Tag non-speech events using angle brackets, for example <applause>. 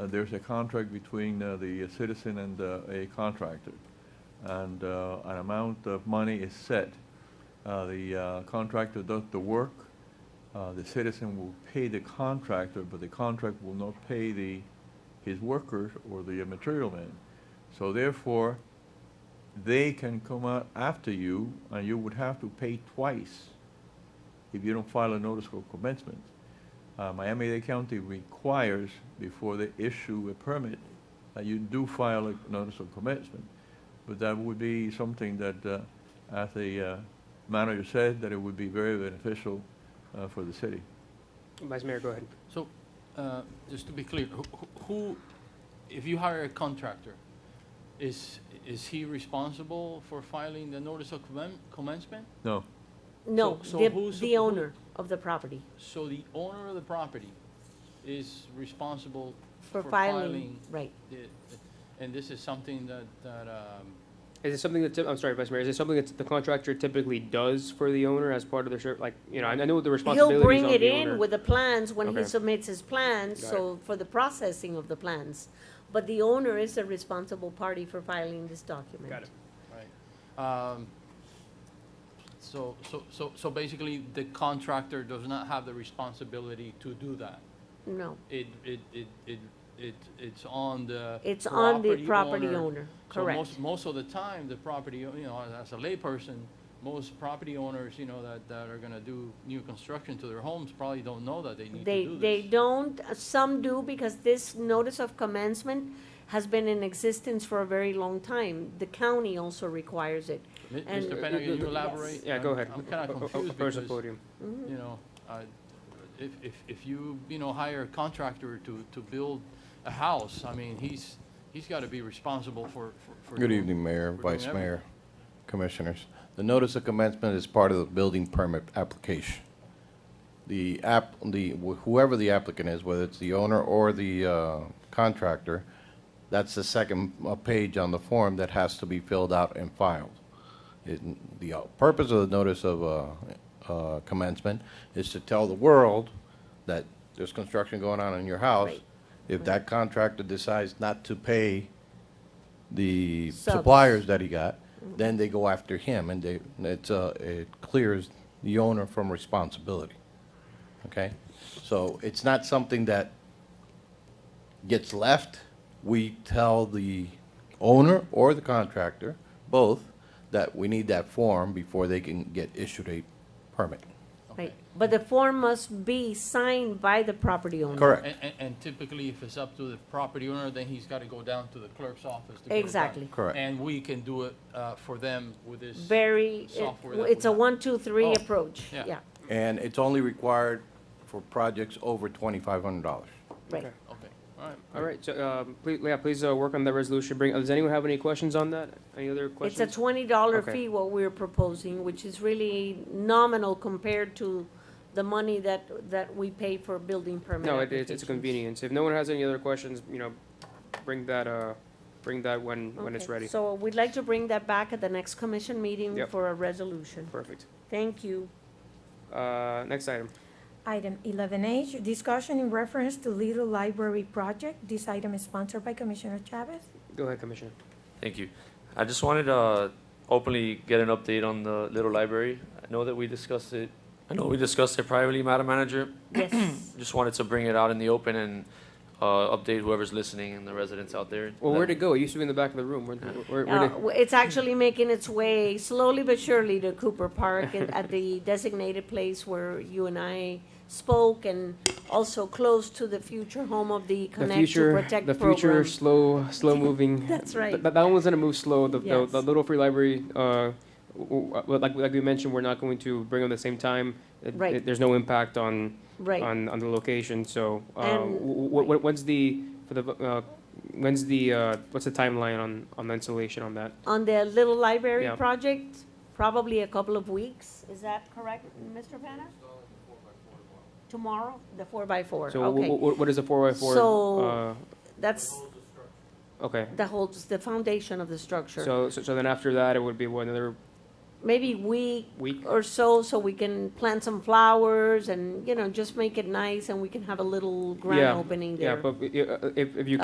uh, there's a contract between uh, the citizen and uh, a contractor, and uh, an amount of money is set. Uh, The uh, contractor does the work, uh, the citizen will pay the contractor, but the contract will not pay the, his workers or the uh, material man. So therefore, they can come out after you, and you would have to pay twice if you don't file a notice of commencement. Uh, Miami-Dade County requires, before they issue a permit, that you do file a notice of commencement. But that would be something that, uh, as the uh, manager said, that it would be very beneficial uh, for the city. Vice Mayor, go ahead. So, uh, just to be clear, who- who- who, if you hire a contractor, is, is he responsible for filing the notice of commen- commencement? No, No, So- so the, who's- the who- owner of the property. So the owner of the property is responsible For filing, right. the- And this is something that, that, um, Is it something that, typ- I'm sorry, Vice Mayor, is it something that the contractor typically does for the owner as part of their, ser- like, you know, I I know the He'll responsibilities bring on it the in owner. with the plans when he Okay. submits his plans, Got it. so for the processing of the plans. But the owner is a responsible party for filing this document. Got it. right. Um, So, so, so, so basically, the contractor does not have the responsibility to do that. No, It, it, it, it, it, it's on the. it's on the property owner owner, So correct. most, most of the time, the property, o- you know, as- as a layperson, most property owners, you know, that, that are gonna do new construction to their homes probably don't know that they need They, to do they this. don't, uh, some do, because this notice of commencement has been in existence for a very long time. The county also requires it. Mi- and- Mr. Penna, can you elaborate? Yeah, go I'm- ahead. Oh, I'm kinda O- o- o- confused approach the because, podium. Mhm. you know, I, if, if, if you, you know, hire a contractor to, to build a house, I mean, he's, he's gotta be responsible for, for. for Good doing- evening, Mayor, for doing Vice everything. Mayor, Commissioners. The notice of commencement is part of the building permit application. The app, the, whoever the applicant is, whether it's the owner or the uh, contractor, that's the second uh, page on the form that has to be filled out and filed. It- The uh, purpose of the notice of uh, uh, commencement is to tell the world that there's construction going on in your house. Right. If that contractor decides not to pay the Subs. suppliers that he got, then they go after him, and they, it's, uh, it clears the owner from responsibility, okay? So it's not something that gets left. We tell the owner or the contractor, both, that we need that form before they can get issued a permit. Right, but the form must be signed by the property owner. Correct, And, and- and typically, if it's up to the property owner, then he's gotta go down to the clerk's office to get it done. Exactly. Correct. And we can do it, uh, for them with this. Very, it- Software that it's a we have. one, two, three Oh, approach, yeah. yeah, and it's only required for projects over twenty-five hundred dollars. right. Okay. Okay, all right. All right, so, um, please, yeah, please, uh, work on that resolution, bring, does anyone have any questions on that? Any other It's a questions? twenty dollar Okay. fee what we're proposing, which is really nominal compared to the money that, that we pay for building permit No, it, it's, it's a applications. convenience. If no one has any other questions, you know, bring that, uh, bring that when, when it's Okay, ready. So we'd like to bring that back at the next commission meeting Yep. for a resolution. Perfect. Thank you. Uh, next item. Item eleven H, discussion in reference to Little Library Project. This item is sponsored by Commissioner Chavez. Go ahead, Commissioner. Thank you. I just wanted to uh, openly get an update on the Little Library. I know that we discussed it, I know we discussed it privately, Madam Manager. Yes, Just wanted to bring it out in the open and uh, update whoever's listening and the residents out there. Well, where'd it go? It used to be in the back of the room. Where, where, Uh, where did, w- it's actually making its way slowly but surely to Cooper Park and at the <laughs> designated place where you and I spoke and also close to the future home of the the Connect to future, Protect the future program. slow, <laughs> slow moving. That's right. Th- That, that one's gonna move slow. The, Yes. the, the Little Free Library, uh, w- w- like, like we mentioned, we're not going to bring them the same time. It- Right. it- There's no impact on, Right, on, on the location, so, uh, And- what, when's the, for the, uh, when's the, uh, what's the timeline on, on the installation on that? on the little library Yeah. project, probably a couple of weeks, is that correct, Mr. Penna? Tomorrow, the four by four, So wh- okay. wh- what is the four by four? So- uh, That's, Okay, that holds the foundation of the structure. so, so so then after that, it would be what, another maybe week Week. or so, so we can plant some flowers and, you know, just make it nice and we can have a little grand Yeah, opening there. Yeah, but uh, if, if you